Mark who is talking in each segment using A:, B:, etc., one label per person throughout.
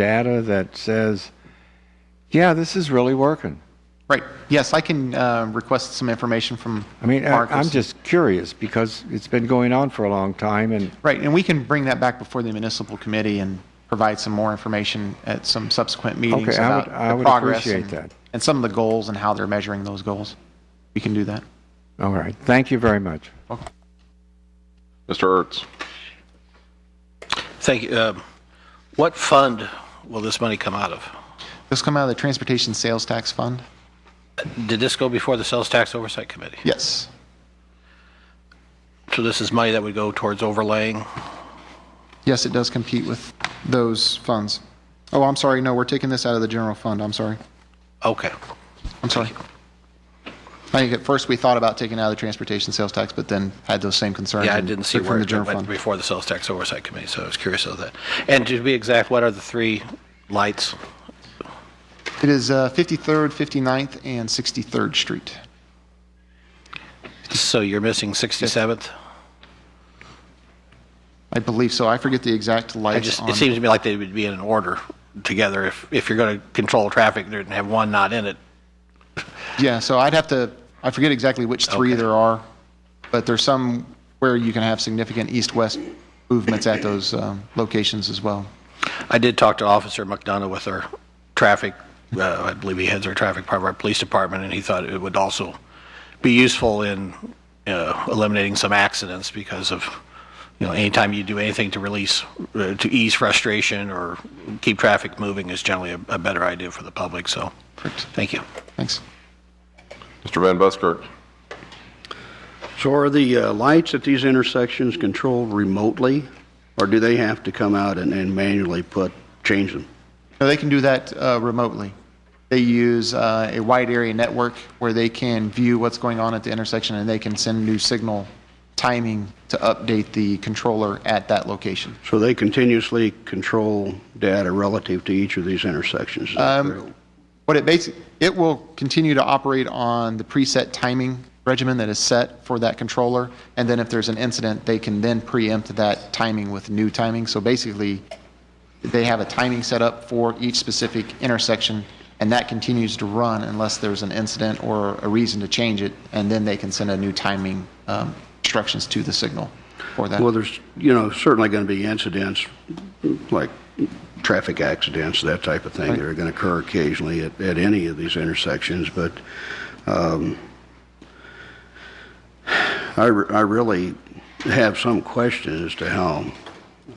A: data that says, yeah, this is really working?
B: Right, yes, I can uh, request some information from
A: I mean, I-
B: Marcus.
A: I'm just curious because it's been going on for a long time and
B: Right, and we can bring that back before the municipal committee and provide some more information at some subsequent meetings
A: Okay, I would-
B: about
A: I
B: the
A: would
B: progress
A: appreciate
B: and-
A: that.
B: and some of the goals and how they're measuring those goals. We can do that.
A: All right. Thank you very much.
C: Mr. Ertz.
D: Thank you. Um, What fund will this money come out of?
B: This come out of the Transportation Sales Tax Fund?
D: Did this go before the Sales Tax Oversight Committee?
B: Yes,
D: So this is money that would go towards overlaying?
B: yes, it does compete with those funds. Oh, I'm sorry, no, we're taking this out of the general fund, I'm sorry,
D: Okay.
B: I'm sorry. I think at first we thought about taking it out of the Transportation Sales Tax, but then had those same concerns.
D: Yeah, I
B: and
D: didn't see
B: took
D: where
B: From the
D: it
B: general
D: went
B: fund.
D: before the Sales Tax Oversight Committee, so I was curious of that. And to be exact, what are the three lights?
B: It is uh, 53rd, 59th, and 63rd Street.
D: So you're missing 67th?
B: I believe so. I forget the exact
D: I
B: lights
D: just,
B: on.
D: it seems to me like they would be in an order together. If, if you're going to control traffic there and have one not in it,
B: Yeah, so I'd have to, I forget exactly which three
D: Okay.
B: there are, but there's some where you can have significant east-west movements at those um, locations as well.
D: I did talk to Officer McDonough with our traffic, uh, I believe he heads our traffic part of our police department, and he thought it would also be useful in uh, eliminating some accidents because of, you know, anytime you do anything to release, uh, to ease frustration or keep traffic moving is generally a a better idea for the public, so, thank you.
B: Thanks.
C: Mr. Van Buskirk.
E: So are the uh, lights at these intersections controlled remotely, or do they have to come out and and manually put, change them?
B: No, they can do that uh, remotely. They use uh, a wide area network where they can view what's going on at the intersection, and they can send new signal timing to update the controller at that location.
E: So they continuously control data relative to each of these intersections? is that correct?
B: What it basically, it will continue to operate on the preset timing regimen that is set for that controller. And then if there's an incident, they can then preempt that timing with new timing. So basically, they have a timing set up for each specific intersection, and that continues to run unless there's an incident or a reason to change it. And then they can send a new timing um, instructions to the signal for that.
E: Well, there's, you know, certainly going to be incidents, like traffic accidents, that type of thing, that are going to occur occasionally at, at any of these intersections, but um, I, re- I really have some question as to how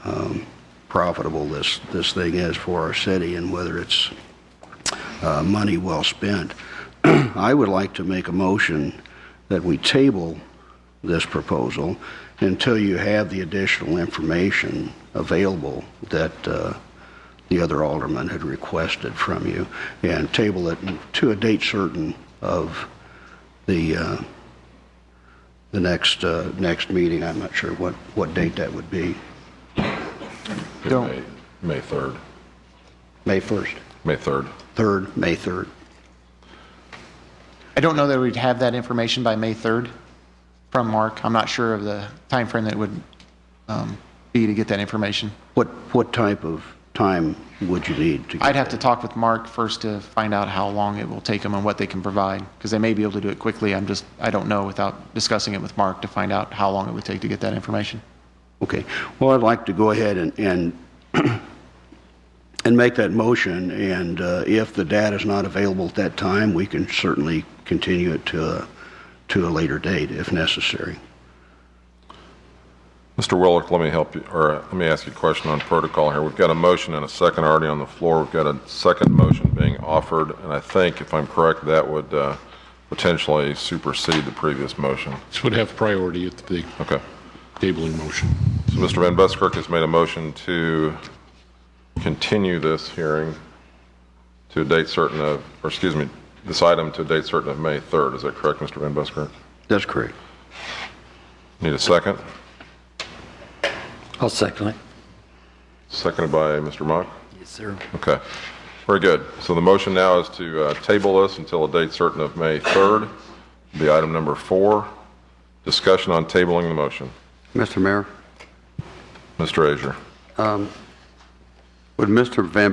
E: um, profitable this, this thing is for our city and whether it's uh, money well spent. I would like to make a motion that we table this proposal until you have the additional information available that uh, the other alderman had requested from you, and table it to a date certain of the, uh, the next, uh, next meeting. I'm not sure what, what date that would be,
B: Don't-
C: May- May 3rd.
E: May 1st,
C: May 3rd.
E: 3rd, May 3rd.
B: I don't know that we'd have that information by May 3rd from Mark. I'm not sure of the timeframe that it would um, be to get that information.
E: What, what type of time would you need to get
B: I'd have to
E: that?
B: talk with Mark first to find out how long it will take them and what they can provide, because they may be able to do it quickly. I'm just, I don't know without discussing it with Mark to find out how long it would take to get that information.
E: Okay, well, I'd like to go ahead and, and, and make that motion, and uh, if the data is not available at that time, we can certainly continue it to a, to a later date if necessary.
C: Mr. Willick, let me help you, or uh, let me ask you a question on protocol here. We've got a motion and a second already on the floor. We've got a second motion being offered, and I think, if I'm correct, that would uh, potentially supersede the previous motion.
F: This would have priority at the
C: Okay.
F: tabling motion.
C: So Mr. Van Buskirk has made a motion to continue this hearing to a date certain of, or excuse me, this item to a date certain of May 3rd. Is that correct, Mr. Van Buskirk?
E: That's correct.
C: Need a second?
G: I'll second it.
C: Seconded by Mr. Mock?
G: Yes, sir.
C: Okay, very good. So the motion now is to uh, table this until a date certain of May 3rd, be item number four. Discussion on tabling the motion.
H: Mr. Mayor,
C: Mr. Azier.
H: would Mr. Van